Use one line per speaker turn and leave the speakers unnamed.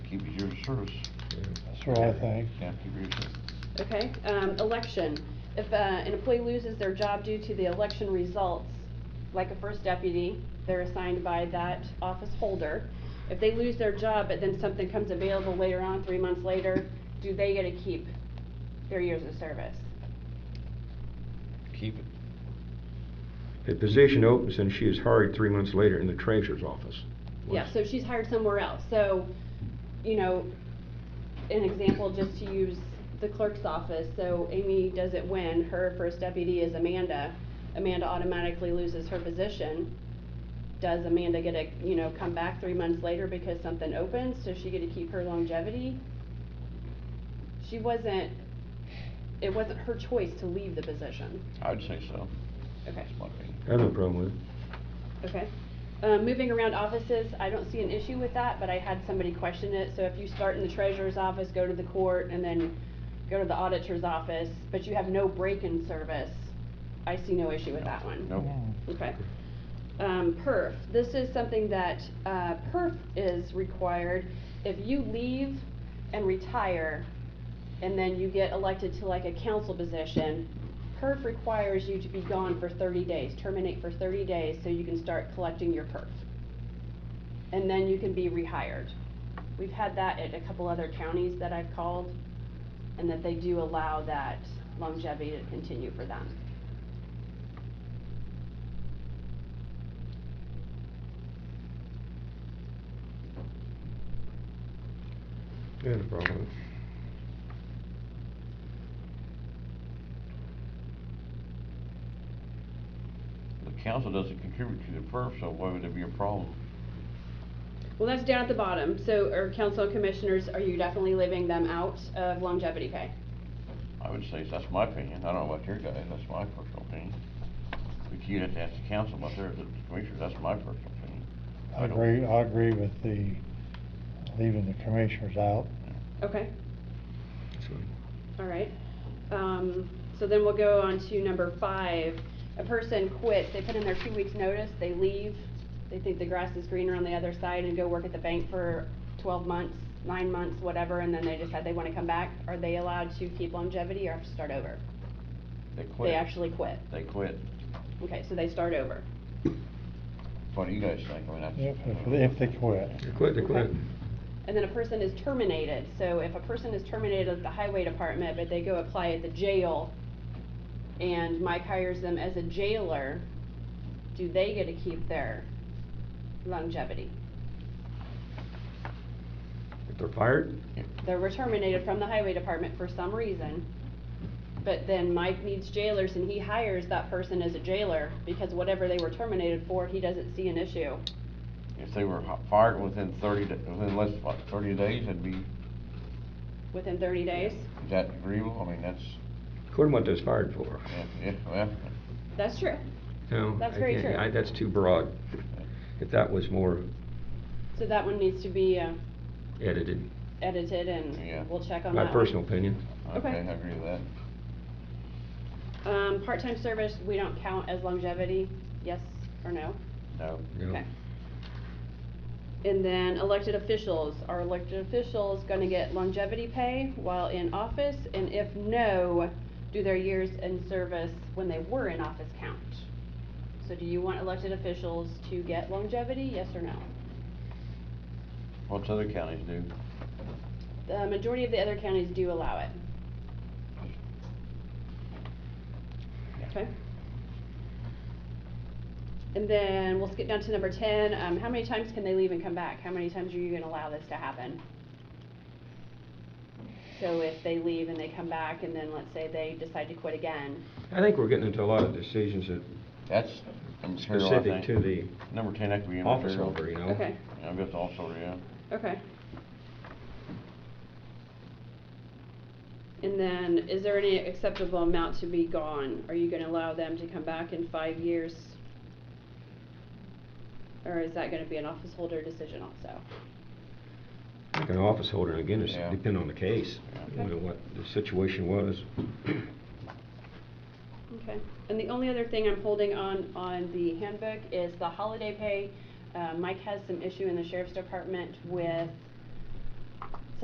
service.
That's what I think.
Yeah, keep your-
Okay, um, election. If, uh, an employee loses their job due to the election results, like a first deputy, they're assigned by that office holder. If they lose their job, but then something comes available later on, three months later, do they get to keep their years of service?
Keep it.
The position opens and she is hired three months later in the treasurer's office.
Yeah, so she's hired somewhere else, so, you know, an example, just to use the clerk's office, so Amy does it when her first deputy is Amanda. Amanda automatically loses her position. Does Amanda get a, you know, come back three months later because something opens, does she get to keep her longevity? She wasn't, it wasn't her choice to leave the position,
I'd say so.
okay.
That's my opinion.
I have no problem with it.
Okay. Uh, Moving around offices, I don't see an issue with that, but I had somebody question it. So if you start in the treasurer's office, go to the court, and then go to the auditor's office, but you have no break-in service, I see no issue with that one.
Nope.
Okay. Um, perf, this is something that, uh, perf is required. If you leave and retire, and then you get elected to like a council position, perf requires you to be gone for thirty days, terminate for thirty days, so you can start collecting your perf. And then you can be rehired. We've had that at a couple other counties that I've called, and that they do allow that longevity to continue for them.
I have no problem with it.
The council doesn't contribute to the perf, so why would there be a problem?
Well, that's down at the bottom, so, are council and commissioners, are you definitely leaving them out of longevity pay?
I would say, that's my opinion, I don't know about your guys, that's my personal opinion. But you'd have to ask the council about their, the commissioners, that's my personal opinion.
I
don't-
agree, I agree with the, leaving the commissioners out.
Okay,
That's fine.
all right. Um, so then we'll go on to number five. A person quits, they put in their two weeks' notice, they leave, they think the grass is greener on the other side and go work at the bank for twelve months, nine months, whatever, and then they decide they wanna come back. Are they allowed to keep longevity or have to start over?
They quit.
They actually quit.
They quit.
Okay, so they start over.
What do you guys think? I mean, that's.
If, if they- if they quit.
They quit, they quit.
Okay. And then a person is terminated, so if a person is terminated at the highway department, but they go apply at the jail, and Mike hires them as a jailer, do they get to keep their longevity?
If they're fired,
They were terminated from the highway department for some reason, but then Mike needs jailers and he hires that person as a jailer, because whatever they were terminated for, he doesn't see an issue.
If they were hi- fired within thirty, da- within less, than, what, thirty days, it'd be,
Within thirty days?
is that agreeable? I mean, that's,
according to what they're fired for.
yeah, yeah, well,
That's true.
No,
That's
I
very
can't-
true.
I- That's too broad. If that was more
So that one needs to be uh,
edited,
edited
Yeah.
and we'll check on that
my
one.
personal opinion.
okay,
Okay.
I agree with that.
Um, part-time service, we don't count as longevity, yes or no?
No,
No.
Okay. And then elected officials, are elected officials gonna get longevity pay while in office? And if no, do their years in service when they were in office count? So do you want elected officials to get longevity, yes or no?
what's other counties do?
The majority of the other counties do allow it. Okay. And then we'll skip down to number ten, um, how many times can they leave and come back? How many times are you gonna allow this to happen? So if they leave and they come back and then let's say they decide to quit again,
I think we're getting into a lot of decisions that
That's material, I
specific
think.
to the
Number ten, that could be.
office
material.
holder, you know?
okay,
Yeah, I guess also, yeah.
okay. And then, is there any acceptable amount to be gone? Are you gonna allow them to come back in five years? Or is that gonna be an office holder decision also?
I think an office holder, again, it's
Yeah.
depend on the case,
Yeah.
you know, what the situation was.
Okay, and the only other thing I'm holding on, on the handbook is the holiday pay. Uh, Mike has some issue in the sheriff's department with